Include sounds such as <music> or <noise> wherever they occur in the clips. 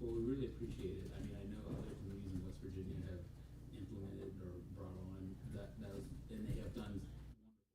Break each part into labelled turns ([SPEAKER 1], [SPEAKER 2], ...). [SPEAKER 1] appreciate it. I mean, I know other communities in West Virginia have implemented or brought on that, that was, and they have done wonderful things.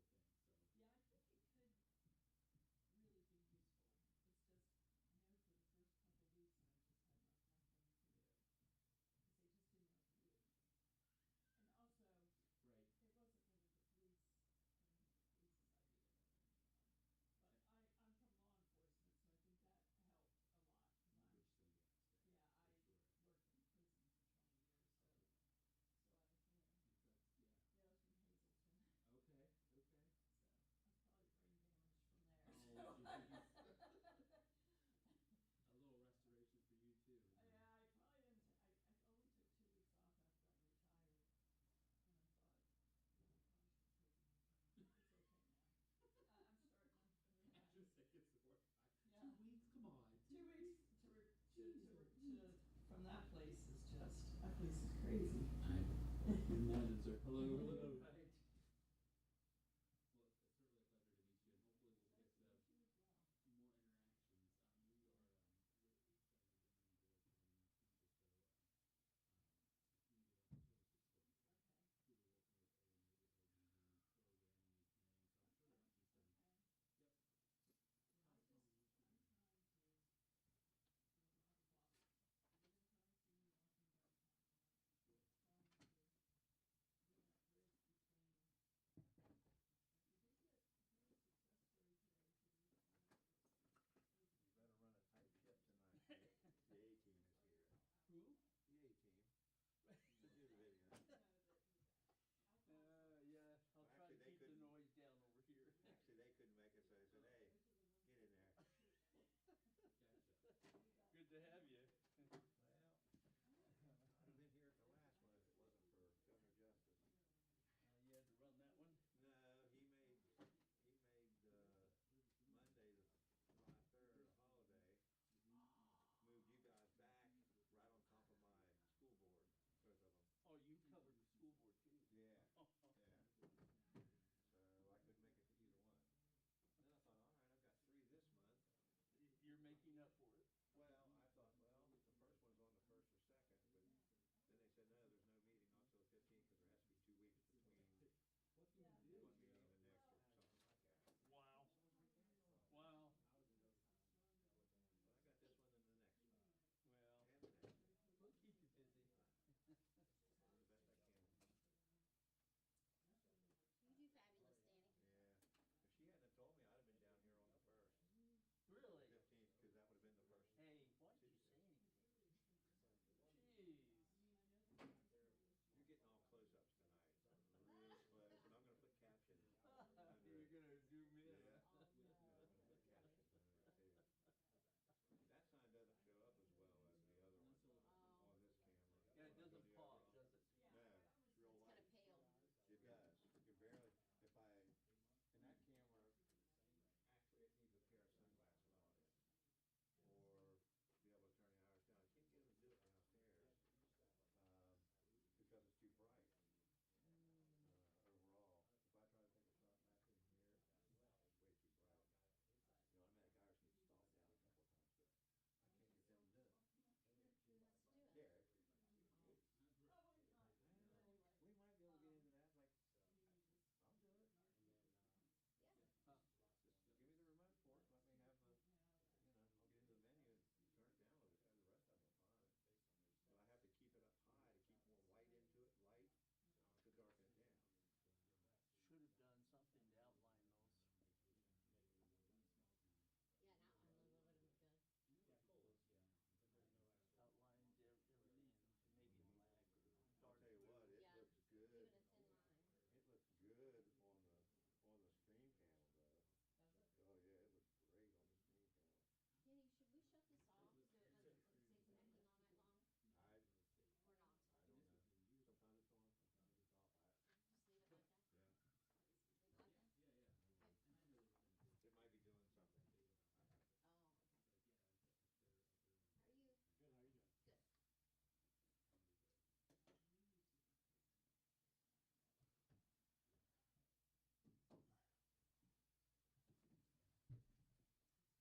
[SPEAKER 2] Two weeks to, re- to, to, re- to, from that place is just, that place is crazy. <laughs>
[SPEAKER 1] I, hello, hello.